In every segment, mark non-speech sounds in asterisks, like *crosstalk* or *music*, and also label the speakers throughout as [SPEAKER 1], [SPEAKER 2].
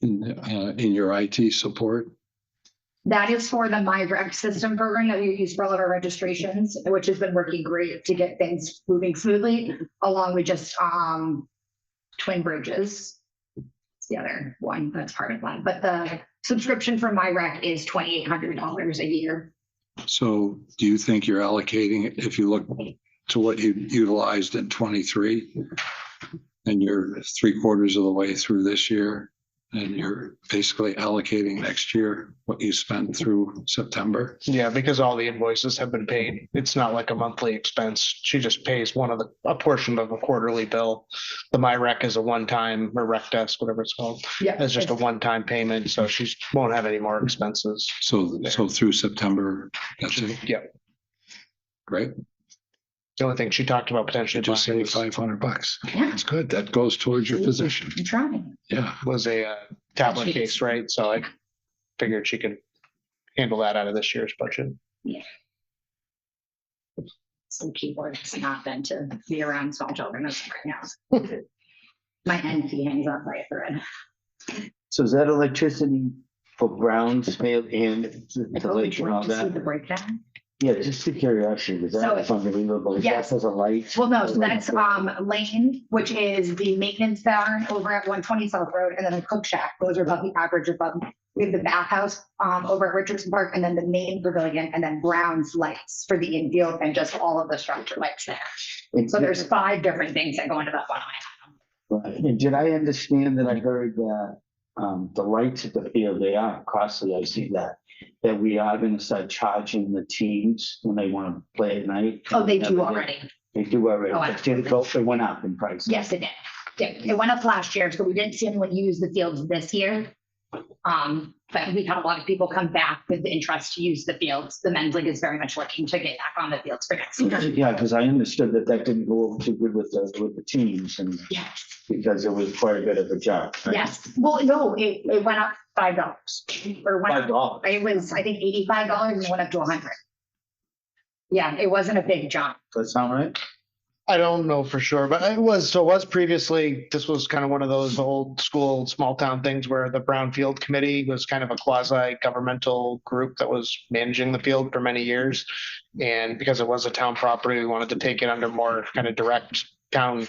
[SPEAKER 1] in, uh, in your IT support?
[SPEAKER 2] That is for the My Rec system program that we use for all of our registrations, which has been working great to get things moving smoothly, along with just, um, Twin Bridges. It's the other one that's part of that, but the subscription for My Rec is twenty-eight hundred dollars a year.
[SPEAKER 1] So do you think you're allocating, it if you look to what you utilized in twenty-three? And you're three quarters of the way through this year, and you're basically allocating next year what you spent through September?
[SPEAKER 3] Yeah, because all the invoices have been paid. It's not like a monthly expense. She just pays one of the, a portion of a quarterly bill. The MyRec is a one-time, or rec desk, whatever it's called.
[SPEAKER 2] Yeah.
[SPEAKER 3] It's just a one-time payment, so she won't have any more expenses.
[SPEAKER 1] So, so through September, that's it,
[SPEAKER 3] Yep.
[SPEAKER 1] great,
[SPEAKER 3] The only thing she talked about potentially
[SPEAKER 1] just
[SPEAKER 3] buying
[SPEAKER 1] saved
[SPEAKER 3] was-
[SPEAKER 1] five hundred bucks.
[SPEAKER 2] Yeah,
[SPEAKER 1] That's good, that goes towards your position,
[SPEAKER 2] I'm trying.
[SPEAKER 1] yeah.
[SPEAKER 3] was a uh, tablet case, right? So I figured she could handle that out of this year's budget.
[SPEAKER 2] Some keyboard has not been to be around small children as of right now. My NP hangs on by a thread.
[SPEAKER 4] So is that electricity for Browns mail and the-
[SPEAKER 2] It's
[SPEAKER 4] the
[SPEAKER 2] really
[SPEAKER 4] lake and
[SPEAKER 2] great
[SPEAKER 4] all
[SPEAKER 2] to see the
[SPEAKER 4] that?
[SPEAKER 2] breakdown.
[SPEAKER 4] Yeah, just a curiosity, because
[SPEAKER 2] So-
[SPEAKER 4] that's unbelievable. Is That
[SPEAKER 2] Yes.
[SPEAKER 4] says a light.
[SPEAKER 2] Well, no, so that's um Lane, which is the maintenance barn over at one twenty South Road, and then the cook shack, those are above the average above. We have the bathhouse um over at Richardson Park, and then the main pavilion, and then Brown's lights for the infield and just all of the structure lights there.
[SPEAKER 4] And
[SPEAKER 2] So
[SPEAKER 4] did-
[SPEAKER 2] there's five different things that go into that one.
[SPEAKER 4] right. And did I understand that I heard that, um, the lights at the field, they are costly, I see that. That we are gonna start charging the teams when they wanna play at night.
[SPEAKER 2] Oh, they do already.
[SPEAKER 4] They do already,
[SPEAKER 2] Oh, I-
[SPEAKER 4] but did it go, it went up in price.
[SPEAKER 2] Yes, it did. Yeah, It went up last year, so we didn't see anyone use the fields this year. Um, but we had a lot of people come back with the interest to use the fields. The men's league is very much looking to get back on the fields for next year.
[SPEAKER 4] Yeah, because I understood that that didn't go over too good with the, with the teams and
[SPEAKER 2] Yes,
[SPEAKER 4] because it was quite a bit of a job. right?
[SPEAKER 2] yes. Well, no, it, it went up five dollars or went
[SPEAKER 4] Five
[SPEAKER 2] up,
[SPEAKER 4] dollars.
[SPEAKER 2] it was, I think, eighty-five dollars and it went up to a hundred. Yeah, it wasn't a big jump.
[SPEAKER 4] Does that sound right?
[SPEAKER 3] I don't know for sure, but it was, so it was previously, this was kind of one of those old school, small town things where the Brownfield Committee was kind of a quasi governmental group that was managing the field for many years. And because it was a town property, we wanted to take it under more kind of direct town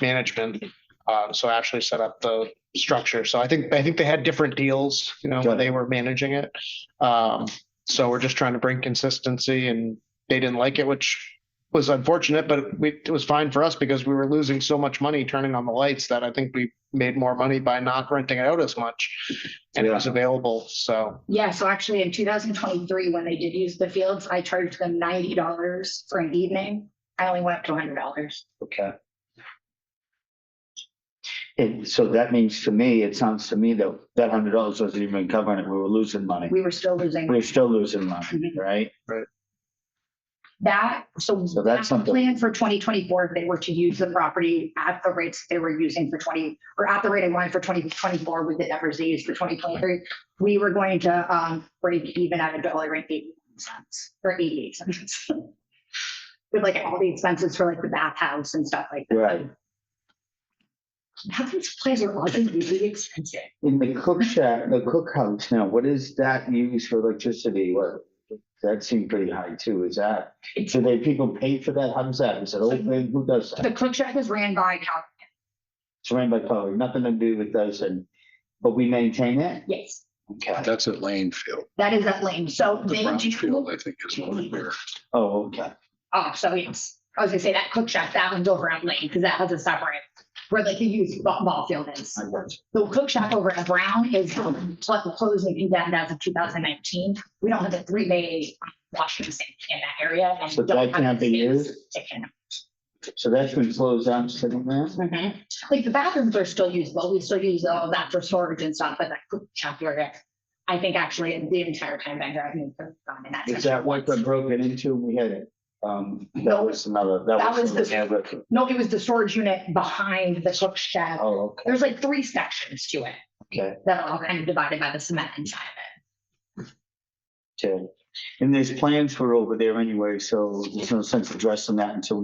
[SPEAKER 3] management. Uh, so Ashley set up the structure. So I think, I think they had different deals, you know, when they were managing it. Um, so we're just trying to bring consistency and they didn't like it, which was unfortunate, but we, it was fine for us because we were losing so much money turning on the lights that I think we made more money by not renting it out as much. And it was available, so
[SPEAKER 2] Yeah, so actually in two thousand twenty-three, when they did use the fields, I charged them ninety dollars for an evening. I only went up to hundred dollars.
[SPEAKER 4] Okay. And so that means to me, it sounds to me that that hundred dollars wasn't even covering it. We were losing money.
[SPEAKER 2] We Mm-hmm. were still losing.
[SPEAKER 4] We're still losing money, right?
[SPEAKER 2] That, so.
[SPEAKER 4] So that's
[SPEAKER 2] that
[SPEAKER 4] something-
[SPEAKER 2] Plan for twenty twenty-four, if they were to use the property at the rates they were using for twenty, or at the rate I wanted for twenty twenty-four with the numbers they used for twenty twenty-three, we were going to, um, break even at a dollar and eighty cents, or eighty-eight cents. *laughs* With like all the expenses for like the bathhouse and stuff like that.
[SPEAKER 4] Right.
[SPEAKER 2] How these places are always really expensive.
[SPEAKER 4] In the cook shack, the cookhouse now, what is that used for electricity? What? That seemed pretty high too. Is that,
[SPEAKER 2] It's- Mm-hmm.
[SPEAKER 4] do they people pay for that? How's that? Is it open? Who does that?
[SPEAKER 2] The cook shack is ran by, Cal-
[SPEAKER 4] It's run by Power, nothing to do with us and, but we maintain it?
[SPEAKER 2] yes,
[SPEAKER 4] Okay.
[SPEAKER 1] That's at Lane Field,
[SPEAKER 2] that is that lane, so
[SPEAKER 1] the
[SPEAKER 2] they
[SPEAKER 1] Brown
[SPEAKER 2] do.
[SPEAKER 1] Field, I think is one of your,
[SPEAKER 4] Oh, okay.
[SPEAKER 2] Oh, so yes, I was gonna say that cook shack, that one's over at Lane, because that has a separate, where like the youth ball ball field is.
[SPEAKER 4] I got you.
[SPEAKER 2] The cook shack over at Brown is um, cl- closed and condemned as of two thousand nineteen. We don't have a three bay washing sink in that area. and
[SPEAKER 4] So
[SPEAKER 2] don't
[SPEAKER 4] that
[SPEAKER 2] have
[SPEAKER 4] can't
[SPEAKER 2] the
[SPEAKER 4] be
[SPEAKER 2] space
[SPEAKER 4] used?
[SPEAKER 2] to can-
[SPEAKER 4] So that's been closed down, sitting there?
[SPEAKER 2] Mhm. Like the bathrooms are still usable, we still use all that for storage and stuff, but that cook shack area, I think actually the entire time I've been there, I've gone in that.
[SPEAKER 4] Is
[SPEAKER 2] section
[SPEAKER 4] that what
[SPEAKER 2] once.
[SPEAKER 4] got broken into? We had it. Um, that was another, that was.
[SPEAKER 2] That was the-
[SPEAKER 4] another-
[SPEAKER 2] No, it was the storage unit behind the cook shack.
[SPEAKER 4] Oh, okay,
[SPEAKER 2] There's like three sections to it
[SPEAKER 4] okay,
[SPEAKER 2] that are all kind of divided by the cement inside of
[SPEAKER 4] okay. And there's plans for over there anyway, so there's no sense addressing that until